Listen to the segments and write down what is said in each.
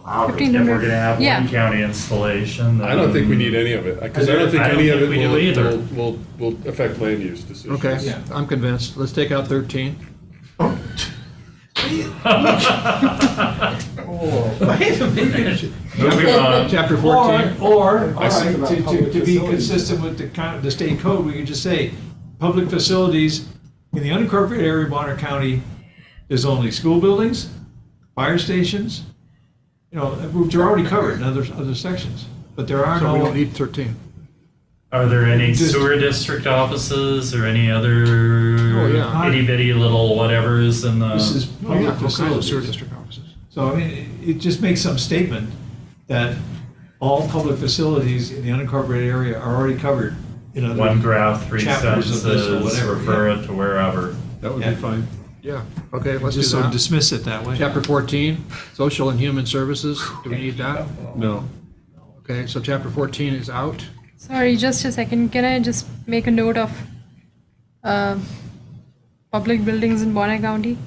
If we're 1,500. gonna have Yeah. one county installation, then. I don't think we need any of it, because I don't think I don't any of think it we do either. will, will, will will affect land use decisions. Okay, I'm convinced. Let's take out 13. Wait a minute. Moving on. Chapter Or, 14. or, all I see. right, to, to, to be consistent with the coun the state code, we could just say, public facilities in the unincorporated area of Bonner County is only school buildings, fire stations, you know, which are already covered in other, other sections, but there are So we don't no, need 13. Are there any Just- sewer district offices or any other Oh, yeah. itty bitty little whatevers in the? this is Oh, yeah, public all kinds of sewer facilities. district offices. So, I mean, it it just makes some statement that all public facilities in the unincorporated area are already covered in other. One graph, three Chapters of this or sentences, whatever, refer yeah. it to wherever. That would Yeah. be fine. Yeah, okay, let's do Just so that. dismiss it that way. Chapter 14, social and human services. Do we need that? No. Okay, so chapter 14 is out. Sorry, just a second. Can I just make a note of uh, public buildings in Bonner County?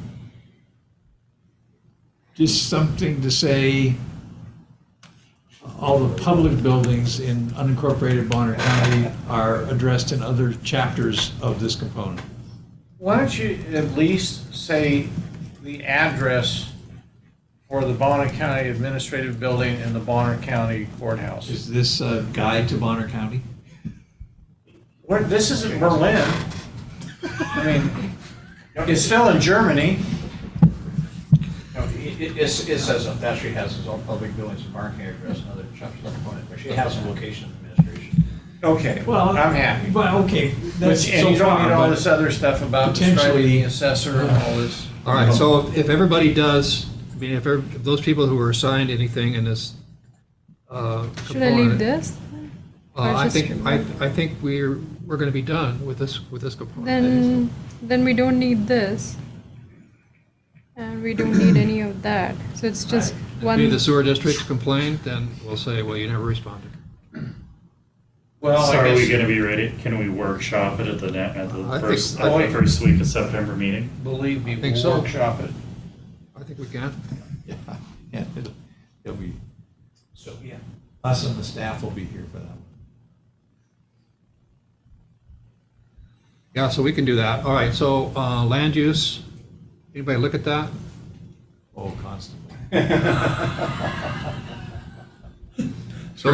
Just something to say, all the public buildings in unincorporated Bonner County are addressed in other chapters of this component. Why don't you at least say the address for the Bonner County Administrative Building and the Bonner County Courthouse? Is this a guide to Bonner County? Where, this isn't Berlin. I mean, it's still in Germany. No, it, it- it's- it says that Thatcher has his own public buildings and marketing address and other chapters of the component, but she has a location of administration. Okay, I'm happy. But, okay, But, that's and so you don't far, need all this but other stuff about describing potentially- the assessor and all this. All right, so if- if everybody does, I mean, if every- if those people who are assigned anything in this uh, Should I leave component, this? Uh, I Or just think, I, I think we're, we're gonna be done with this, with this component. Then, then we don't need this. And we don't need any of that. So it's just If one. any of the sewer districts complain, then we'll say, well, you never responded. Well, So I are we guess, gonna be ready, can we workshop it at the, ne- at I the think- first, I at the think- first week of September meeting? believe me, I think we'll so. workshop it. I think we can. yeah, yeah, it'll- it'll be- So, yeah. us and the staff will be here for that one. Yeah, so we can do that. All right, so, uh, land use, anybody look at that? Oh, constantly. So,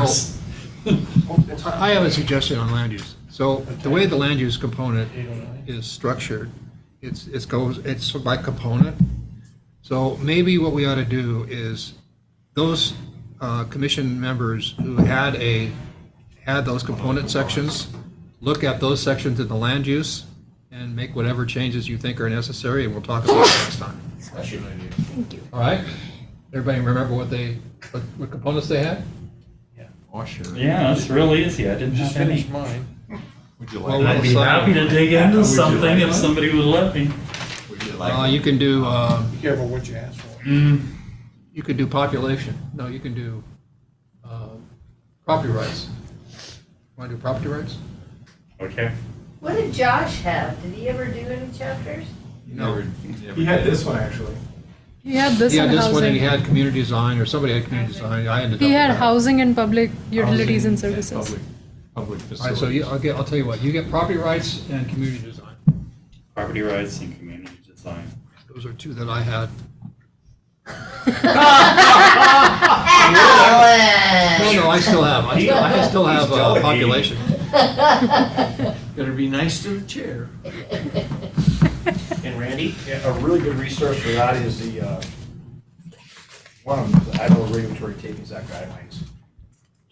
I I have a suggestion on land use. So the way the land use component is structured, it's, it goes, it's by component. So maybe what we ought to do is those uh, commission members who had a, had those component sections, look at those sections in the land use and make whatever changes you think are necessary, and we'll talk about it next time. That's your idea. All right? Everybody remember what they, what- what components they had? Oh, sure. Yeah, it's real easy, I didn't Just have any. finish mine. Would you Well, like, I'd be happy to dig Would you into something like if one? somebody would let me. would you Uh, like? You can do, um, Be careful what you ask for. Mm. You could do population. No, you can do um, property rights. Want to do property rights? Okay. What did Josh have? Did he ever do any chapters? No. He had this one actually. He had this Yeah, and this one, and housing. he had community design, or somebody had community design. I ended up. He with had that. housing and public utilities and Housing services. public- Public All right, so facilities. you, I'll get, I'll tell you what, you get property rights and community design. Property rights and community design. Those are two that I had. No, Alan! no, I still have, I still, I still have He's uh, delegating. population. Gotta be nice to the chair. And Randy, a really good resource for that is the, uh, one of them, is the Idaho Regulatory Takings Act guidelines.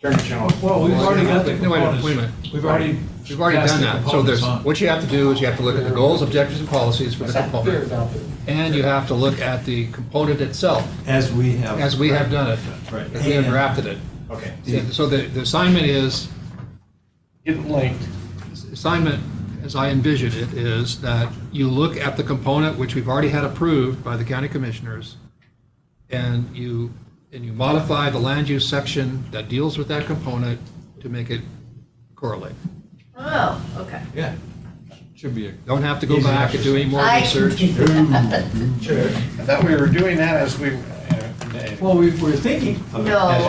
Attorney General. Well, we've already got the No, wait a minute, components. wait a minute. We've already. We've already passed done the that. So there's, components on. what you have to do is you have to look at the goals, objectives, and policies for the They're component. adopted. And you have to look at the component itself, As we have. as we have done it, Right. as we have drafted it. Okay. Yeah, So the, the assignment is, Get it linked. assignment, as I envision it, is that you look at the component which we've already had approved by the county commissioners, and you, and you modify the land use section that deals with that component to make it correlate. Oh, okay. Yeah. Should be a. Don't have to go back and do any more I- research. I thought we were doing that as we, uh, designated. Well, we were thinking of it as No.